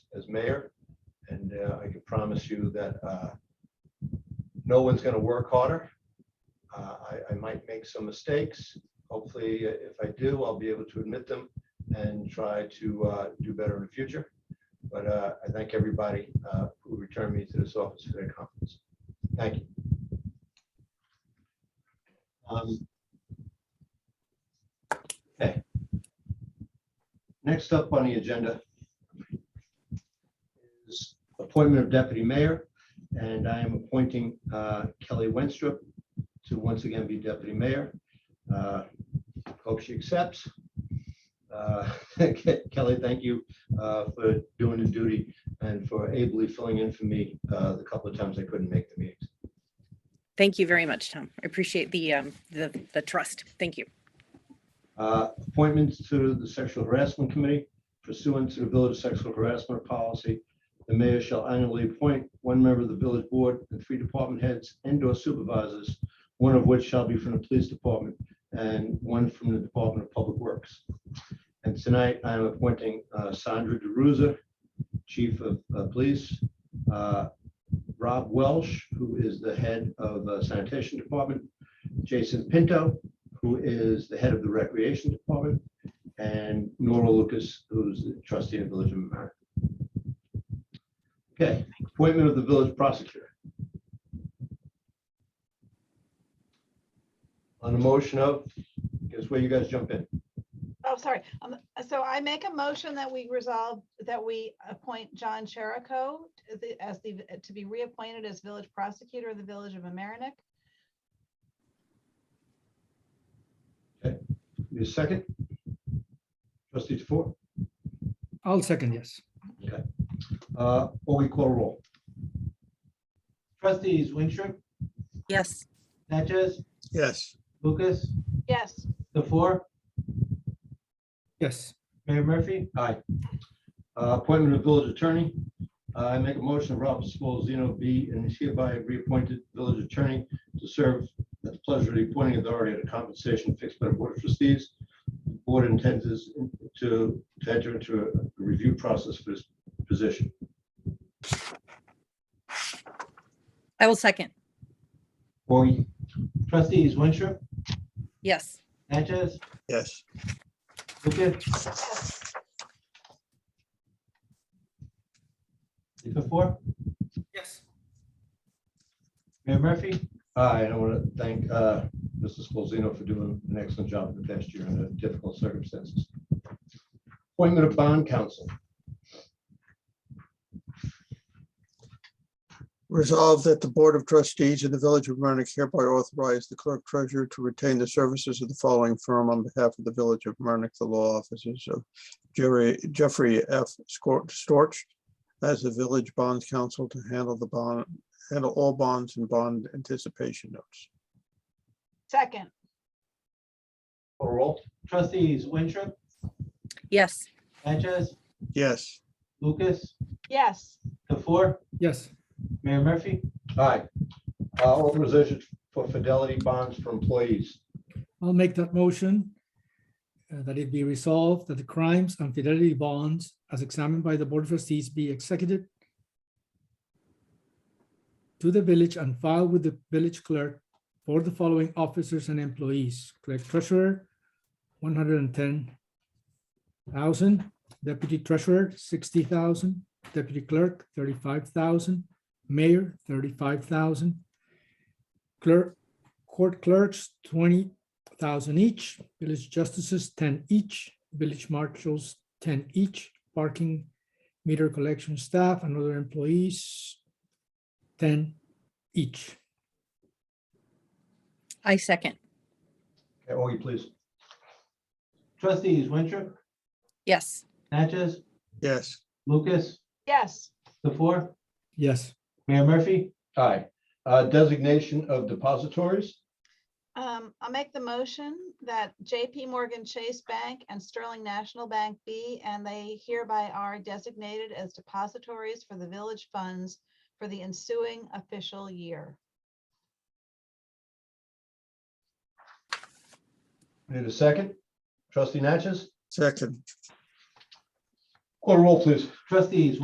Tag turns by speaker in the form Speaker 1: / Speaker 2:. Speaker 1: as mayor. And uh, I can promise you that uh, no one's going to work harder. Uh, I, I might make some mistakes. Hopefully, uh, if I do, I'll be able to admit them and try to uh, do better in the future. But uh, I thank everybody uh, who returned me to this office for their confidence. Thank you. Um, Okay. Next up on the agenda is appointment of deputy mayor, and I am appointing uh, Kelly Wenstrup to once again be deputy mayor. Uh, Hope she accepts. Uh, Kelly, thank you uh, for doing the duty and for ably filling in for me uh, the couple of times I couldn't make the meetings.
Speaker 2: Thank you very much, Tom. I appreciate the, um, the, the trust. Thank you.
Speaker 1: Uh, Appointments to the Sexual Harassment Committee pursuant to the Village Sexual Harassment Policy. The mayor shall annually appoint one member of the village board and three department heads and/or supervisors, one of which shall be from the police department and one from the Department of Public Works. And tonight, I am appointing uh, Sandra DeRusa, Chief of uh, Police, uh, Rob Welsh, who is the head of uh, Sanitation Department, Jason Pinto, who is the head of the Recreation Department, and Nora Lucas, who's the trustee of Village of America. Okay, appointment of the village prosecutor. On the motion of, guess where you guys jump in.
Speaker 3: Oh, sorry. Um, so I make a motion that we resolve, that we appoint John Cherico to the- as the, to be reappointed as village prosecutor of the village of Amerenik.
Speaker 1: Need a second? Trustee DeFour,
Speaker 4: I'll second, yes.
Speaker 1: uh, or we call roll?
Speaker 5: Trustees Winstrup,
Speaker 2: Yes.
Speaker 5: Natchez,
Speaker 6: yes,
Speaker 5: Lucas,
Speaker 3: Yes,
Speaker 5: the four,
Speaker 4: Yes,
Speaker 5: Mayor Murphy,
Speaker 1: Aye. Uh, Appointment of village attorney. Uh, I make a motion, Robert Spolzino be and is hereby reappointed village attorney to serve at the pleasure of the appointing authority at a compensation fixed by the board of trustees. The Board intends is to to enter into a review process for this position.
Speaker 2: I will second.
Speaker 1: Forty,
Speaker 5: trustees Winstrup,
Speaker 2: Yes.
Speaker 5: Natchez,
Speaker 6: yes,
Speaker 5: Lucas, the four,
Speaker 4: yes,
Speaker 5: Mayor Murphy,
Speaker 1: Hi, and I want to thank uh, Mr. Spolzino for doing an excellent job the past year under difficult circumstances. Appointment of bond counsel.
Speaker 6: resolved that the Board of Trustees of the Village of Marnik hereby authorize the clerk treasurer to retain the services of the following firm on behalf of the Village of Marnik, the law offices of Jerry, Jeffrey F. Scor- Storch as the village bond counsel to handle the bond, handle all bonds and bond anticipation notes.
Speaker 3: second,
Speaker 1: Call Roll.
Speaker 5: trustees Winstrup,
Speaker 2: Yes.
Speaker 5: Natchez,
Speaker 6: Yes,
Speaker 5: Lucas,
Speaker 3: yes,
Speaker 5: the four,
Speaker 4: yes,
Speaker 5: Mayor Murphy,
Speaker 1: Aye. Uh, Authorization for fidelity bonds for employees.
Speaker 4: I'll make that motion. uh, That it be resolved that the crimes and fidelity bonds as examined by the Board of Trustees be executed to the village and filed with the village clerk for the following officers and employees. Clerk treasurer, one hundred and ten thousand, deputy treasurer, sixty thousand, deputy clerk, thirty-five thousand, mayor, thirty-five thousand, clerk, court clerks, twenty thousand each, village justices ten each, village marshals ten each, parking meter collection staff and other employees ten each.
Speaker 2: I second.
Speaker 1: Okay, Augie, please.
Speaker 5: trustees Winstrup,
Speaker 2: Yes.
Speaker 5: Natchez,
Speaker 6: yes,
Speaker 5: Lucas,
Speaker 3: yes,
Speaker 5: the four,
Speaker 4: Yes,
Speaker 5: Mayor Murphy,
Speaker 1: Aye. Uh, Designation of depositories.
Speaker 3: Um, I'll make the motion that JP Morgan Chase Bank and Sterling National Bank be, and they hereby are designated as depositories for the village funds for the ensuing official year.
Speaker 1: Need a second? Trustee Natchez?
Speaker 6: second,
Speaker 1: Call roll, please.
Speaker 5: trustees